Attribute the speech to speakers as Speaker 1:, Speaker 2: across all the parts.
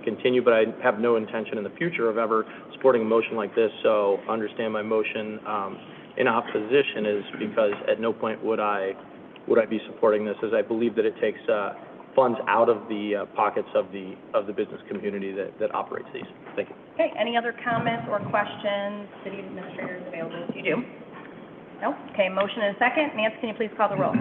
Speaker 1: continue, but I have no intention in the future of ever supporting a motion like this. So understand my motion um, in opposition is because at no point would I, would I be supporting this, as I believe that it takes uh, funds out of the uh, pockets of the, of the business community that, that operates these. Thank you.
Speaker 2: Okay, any other comments or questions? City administrator is available if you do. No? Okay, motion and a second. Nancy, can you please call the roll?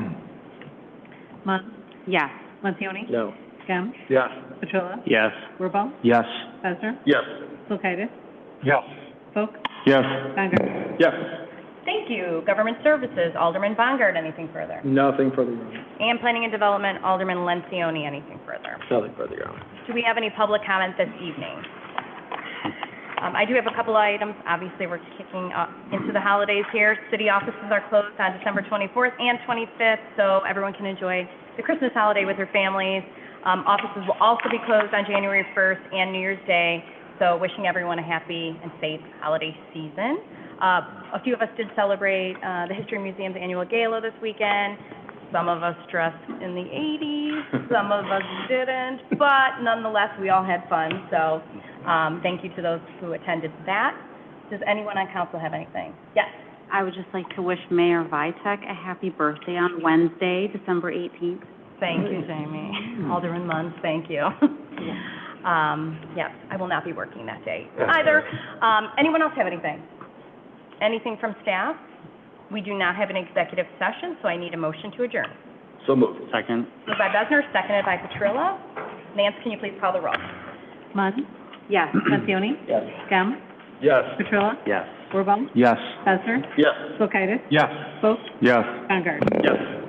Speaker 3: Mon, yes. Montioni?
Speaker 1: No.
Speaker 3: Gem?
Speaker 1: Yes.
Speaker 3: Petrola?
Speaker 1: Yes.
Speaker 3: Wirbal?
Speaker 1: Yes.
Speaker 3: Besser?
Speaker 1: Yes.
Speaker 3: Kulkaitis?
Speaker 1: Yes.
Speaker 3: Folk?
Speaker 1: Yes.
Speaker 3: Conger?
Speaker 1: Yes.
Speaker 2: Thank you. Government Services, Alderman Bongard, anything further?
Speaker 1: Nothing further, Your Honor.
Speaker 2: And Planning and Development, Alderman Lencioni, anything further?
Speaker 1: Nothing further, Your Honor.
Speaker 2: Do we have any public comment this evening? Um, I do have a couple of items. Obviously, we're kicking up into the holidays here. City offices are closed on December 24th and 25th, so everyone can enjoy the Christmas holiday with their families. Um, offices will also be closed on January 1st and New Year's Day, so wishing everyone a happy and safe holiday season. Uh, a few of us did celebrate, uh, the History Museum's annual gala this weekend. Some of us dressed in the 80s, some of us didn't, but nonetheless, we all had fun, so, um, thank you to those who attended that. Does anyone on council have anything? Yes.
Speaker 3: I would just like to wish Mayor Vitek a happy birthday on Wednesday, December eighteenth.
Speaker 2: Thank you, Jamie. Alderman Munns, thank you. Um, yes, I will not be working that day either. Um, anyone else have anything? Anything from staff? We do not have an executive session, so I need a motion to adjourn.
Speaker 1: So moved. Second.
Speaker 2: Moved by Besner, seconded by Petrillo. Nance, can you please call the roll?
Speaker 3: Mon? Yes. Montioni?
Speaker 1: Yes.
Speaker 3: Gem?
Speaker 1: Yes.
Speaker 3: Petrola?
Speaker 1: Yes.
Speaker 3: Wirbal?
Speaker 1: Yes.
Speaker 3: Besser?
Speaker 1: Yes.
Speaker 3: Kulkaitis?
Speaker 1: Yes.
Speaker 3: Folk?
Speaker 1: Yes.
Speaker 3: Conger?
Speaker 1: Yes.